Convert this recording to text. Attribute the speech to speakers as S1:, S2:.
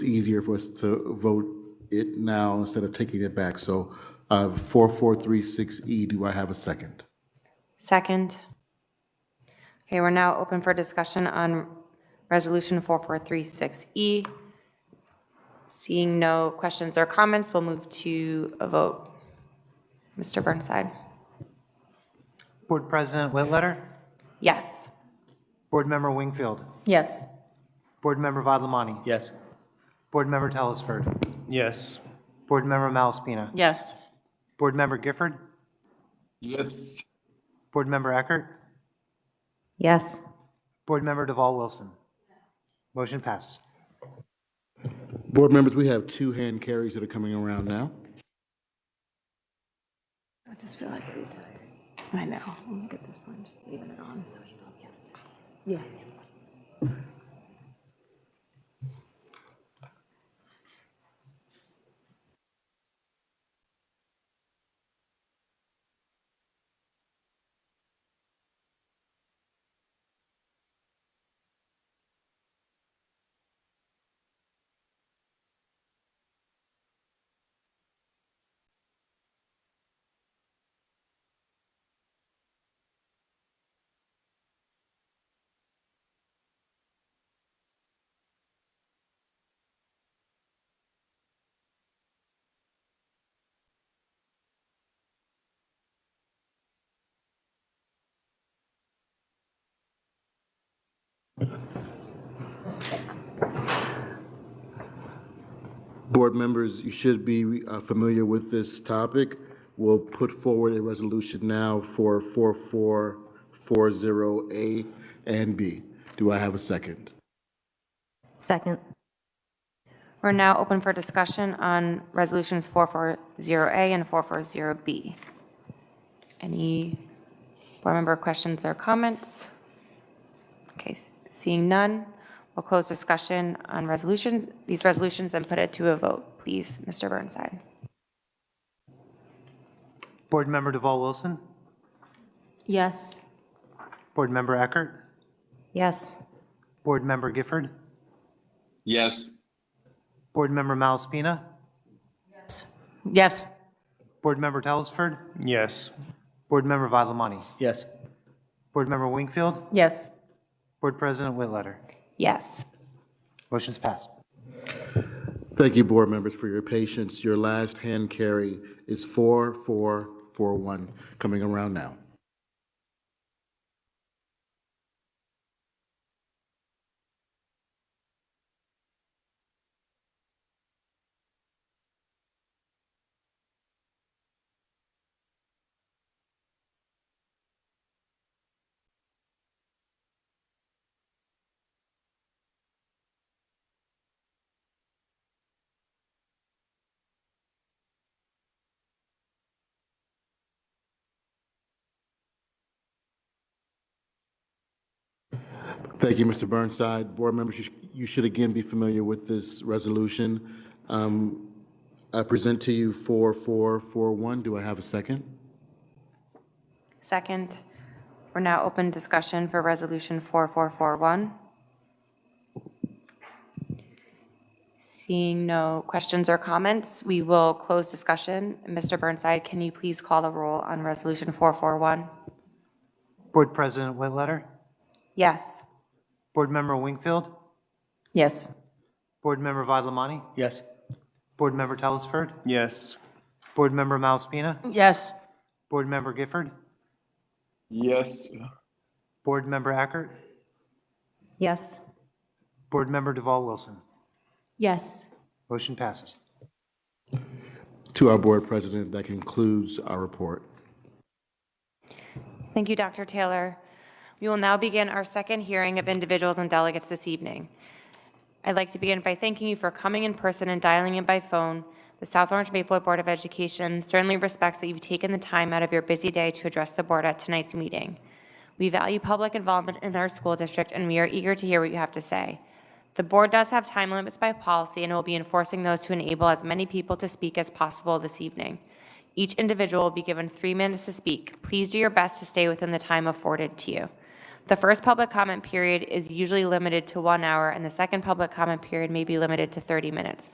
S1: easier for us to vote it now instead of taking it back. So uh, 4436E, E, do I have a second?
S2: Second. Okay, we're now open for discussion on Resolution 4436E. E. Seeing no questions or comments, we'll move to a vote. Mr. Burnside?
S3: Board President Whitletter.
S2: Yes.
S3: Board Member Wingfield.
S4: Yes.
S3: Board Member Vadlamani.
S5: Yes.
S3: Board Member Telesford.
S5: Yes.
S3: Board Member Malaspina.
S4: Yes.
S3: Board Member Gifford.
S5: Yes.
S3: Board Member Eckert.
S2: Yes.
S3: Board Member Deval Wilson. Motion passes.
S1: Board members, we have two hand carries that are coming around now.
S2: I just feel like, I know, I'm at this point, just leaving it on, so you know, yes.
S1: Board members, you should be uh, familiar with this topic. We'll put forward a resolution now for 4440A and B. Do I have a second?
S6: Second.
S2: We're now open for discussion on Resolutions 440A and 440B. Any board member questions or comments? Okay, seeing none, we'll close discussion on resolutions, these resolutions, and put it to a vote, please, Mr. Burnside.
S3: Board Member Deval Wilson.
S4: Yes.
S3: Board Member Eckert.
S6: Yes.
S3: Board Member Gifford.
S5: Yes.
S3: Board Member Malaspina.
S4: Yes.
S3: Board Member Telesford.
S5: Yes.
S3: Board Member Vadlamani.
S5: Yes.
S3: Board Member Wingfield.
S4: Yes.
S3: Board President Whitletter.
S2: Yes.
S3: Motion's passed.
S1: Thank you, board members, for your patience. Your last hand carry is 4441, coming around now. Thank you, Mr. Burnside. Board members, you sh- you should again be familiar with this resolution. Um, I present to you 4441. Do I have a second?
S2: Second, we're now open discussion for Resolution 4441. Seeing no questions or comments, we will close discussion. Mr. Burnside, can you please call the roll on Resolution 441?
S3: Board President Whitletter.
S2: Yes.
S3: Board Member Wingfield.
S4: Yes.
S3: Board Member Vadlamani.
S5: Yes.
S3: Board Member Telesford.
S5: Yes.
S3: Board Member Malaspina.
S4: Yes.
S3: Board Member Gifford.
S5: Yes.
S3: Board Member Ackert.
S6: Yes.
S3: Board Member Deval Wilson.
S4: Yes.
S3: Motion passes.
S1: To our board president, that concludes our report.
S2: Thank you, Dr. Taylor. We will now begin our second hearing of individuals and delegates this evening. I'd like to begin by thanking you for coming in person and dialing in by phone. The South Orange Maplewood Board of Education certainly respects that you've taken the time out of your busy day to address the board at tonight's meeting. We value public involvement in our school district, and we are eager to hear what you have to say. The board does have time limits by policy, and will be enforcing those to enable as many people to speak as possible this evening. Each individual will be given three minutes to speak. Please do your best to stay within the time afforded to you. The first public comment period is usually limited to one hour, and the second public comment period may be limited to 30 minutes.